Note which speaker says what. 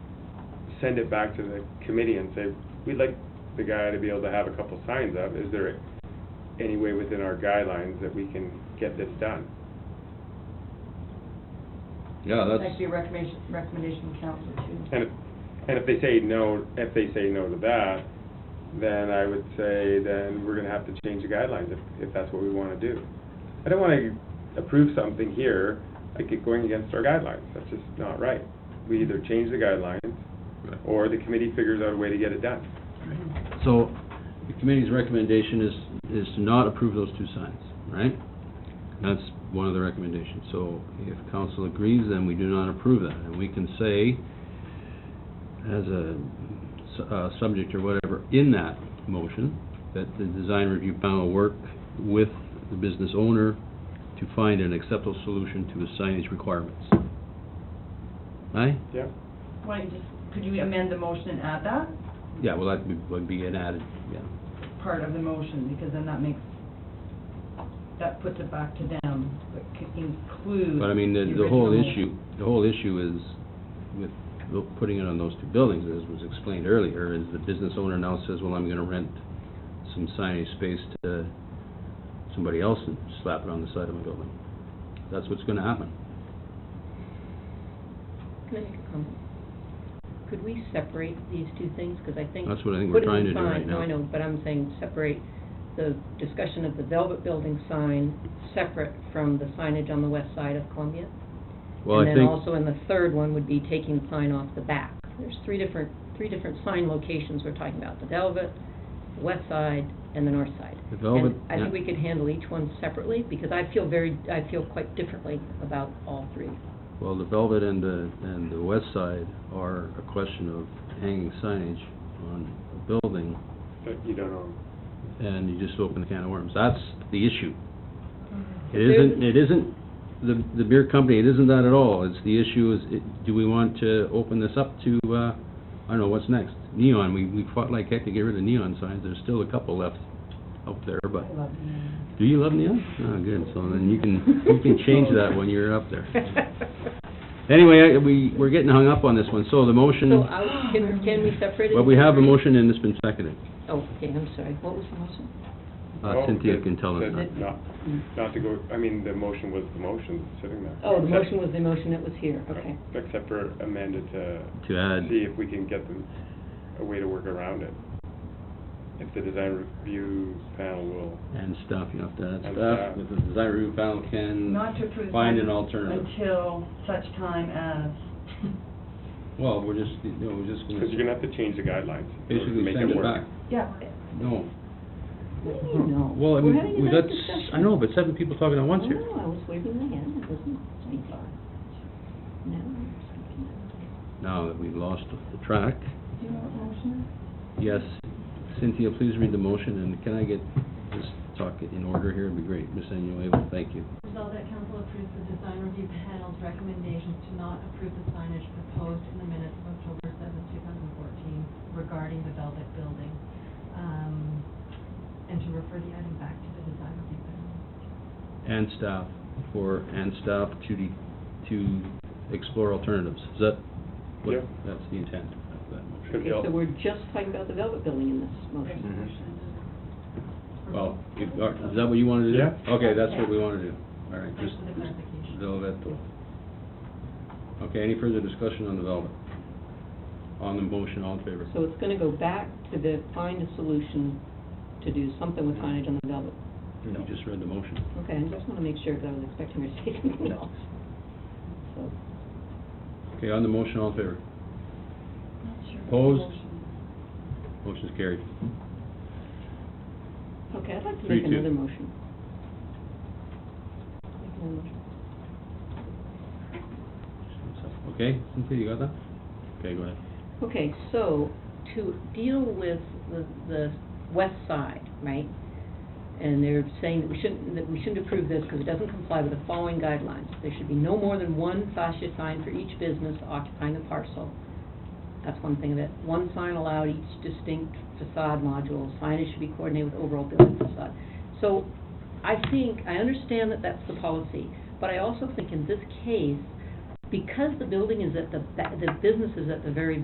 Speaker 1: send it back to the committee and say, we'd like the guy to be able to have a couple signs up, is there any way within our guidelines that we can get this done?
Speaker 2: Yeah,
Speaker 3: That could
Speaker 2: that's,
Speaker 3: be a recommendation, recommendation to council too.
Speaker 1: And if, and if they say no, if they say no to that, then I would say, then we're gonna have to change the guidelines if, if that's what we wanna do. I don't wanna approve something here, like it going against our guidelines, that's just not right. We either change the guidelines, or the committee figures out a way to get it done.
Speaker 2: so the committee's recommendation is, is to not approve those two signs, right? That's one of the recommendations. So if council agrees, then we do not approve that. And we can say, as a su- uh, subject or whatever, in that motion, that the design review panel work with the business owner to find an acceptable solution to his signage requirements. Aye?
Speaker 1: Yeah?
Speaker 3: Why don't you just, could you amend the motion and add that
Speaker 2: Yeah, well, that would- would be an added, yeah.
Speaker 3: part of the motion, because then that makes, that puts it back to them, but could include.
Speaker 2: But I mean, the, the whole
Speaker 3: original-
Speaker 2: issue, the whole issue is with lo- putting it on those two buildings, as was explained earlier, is the business owner now says, well, I'm gonna rent some signage space to somebody else and slap it on the side of my building. That's what's gonna happen.
Speaker 4: Can I make a comment? Could we separate these two things? Because I think...
Speaker 2: That's what I think we're
Speaker 4: putting
Speaker 2: trying
Speaker 4: the
Speaker 2: to do right
Speaker 4: sign-
Speaker 2: now.
Speaker 4: No, I know, but I'm saying separate the discussion of the Velvet Building sign separate from the signage on the west side of Columbia.
Speaker 2: Well, I
Speaker 4: And then
Speaker 2: think,
Speaker 4: also in the third one would be taking the sign off the back. There's three different, three different sign locations we're talking about, the Velvet, the west side, and the north side.
Speaker 2: The Velvet,
Speaker 4: And I think
Speaker 2: yeah.
Speaker 4: we could handle each one separately, because I feel very, I feel quite differently about all three.
Speaker 2: well, the Velvet and the, and the West Side are a question of hanging signage on a building,
Speaker 1: But you don't know.
Speaker 2: and you just open the can of worms. That's the issue. It
Speaker 4: There's-
Speaker 2: isn't, it isn't the, the beer company, it isn't that at all. It's, the issue is, it- do we want to open this up to, uh, I don't know, what's next? Neon, we, we fought like heck to get rid of neon signs. There's still a couple left out there, but,
Speaker 3: I love you.
Speaker 2: do you love neon? Oh, good, so then you can, you can change that when you're up there. Anyway, I- we, we're getting hung up on this one, so the
Speaker 4: So uh,
Speaker 2: motion,
Speaker 4: I, can, can we separate it?
Speaker 2: well, we
Speaker 4: into
Speaker 2: have a
Speaker 4: three?
Speaker 2: motion and it's been seconded.
Speaker 4: Oh, okay, I'm sorry, what was the motion?
Speaker 1: Oh,
Speaker 2: Uh, Cynthia can tell us.
Speaker 1: That- that Not, not to go, I mean, the motion was the motion, sitting there.
Speaker 4: Oh, the
Speaker 1: Except-
Speaker 4: motion was the motion that was here, okay.
Speaker 1: Except for amended to.
Speaker 2: To add-
Speaker 1: See if we can get them, a way to work around it. If the design review panel will,
Speaker 2: And staff, you have to
Speaker 1: And
Speaker 2: add
Speaker 1: uh,
Speaker 2: staff,
Speaker 1: staff.
Speaker 2: with the design review panel can
Speaker 3: Not to approve.
Speaker 2: Mm, find an
Speaker 3: them
Speaker 2: alternative.
Speaker 3: Until such time as,
Speaker 2: Well, we're just, you know, we're just
Speaker 1: because you're
Speaker 2: gonna
Speaker 1: gonna have to change the guidelines. in order to
Speaker 2: basically
Speaker 1: make
Speaker 2: send it
Speaker 1: work.
Speaker 2: back.
Speaker 3: yeah.
Speaker 2: No.
Speaker 4: What do you mean, no?
Speaker 2: Well, I
Speaker 4: We're
Speaker 2: mean,
Speaker 4: having a
Speaker 2: we
Speaker 4: nice
Speaker 2: got, s-
Speaker 4: discussion. Oh,
Speaker 2: I know, but seven people talking at once here.
Speaker 4: No, I was waving my hand, I wasn't, I'm sorry. No, I'm speaking.
Speaker 2: Now that we've lost the track,
Speaker 3: Do you know what motion?
Speaker 2: yes, Cynthia, please read the motion, and can I get, just talk it in order here, it'd be great. Ms. Anuevo, thank you.
Speaker 5: Resolved that council approves the design review panel's recommendations to not approve the signage proposed in the minutes of October seventh, two thousand fourteen regarding the Velvet Building, um, and to refer the item back to the design review panel.
Speaker 2: And staff, for, and staff to, de- to explore alternatives. Is that what,
Speaker 1: Yeah.
Speaker 2: that's the intent of that motion?
Speaker 1: Could be all-
Speaker 4: Okay, so we're just talking about the Velvet Building in this motion.
Speaker 2: Well, if, or- is that what you uh, wanna do?
Speaker 1: Yeah.
Speaker 2: Okay, that's what we wanna do. All right, just
Speaker 5: Thanks for the clarification.
Speaker 2: Velvet. Okay, any further discussion on the Velvet? On the motion, all in favor?
Speaker 4: So it's gonna go back to the, find a solution to do something with signage on the Velvet.
Speaker 2: You just read the motion.
Speaker 4: Okay, I just wanna make sure, because I was expecting her to say something else. So,
Speaker 2: Okay, on the motion, all in favor?
Speaker 5: Not sure.
Speaker 2: Opposed? Motion's carried.
Speaker 4: Okay, I'd like to
Speaker 2: Three,
Speaker 4: make
Speaker 2: two.
Speaker 4: another motion. Make another motion.
Speaker 2: Okay, Cynthia, you got that? Okay, go ahead.
Speaker 4: Okay, so to deal with the, the west side, right? And they're saying that we shouldn't, that we shouldn't approve this because it doesn't comply with the following guidelines. There should be no more than one fascia sign for each business occupying the parcel. That's one thing of it. One sign allowed each distinct facade module. Signage should be coordinated with overall building facade. So I think, I understand that that's the policy, but I also think in this case, because the building is at the, ba- the business is at the very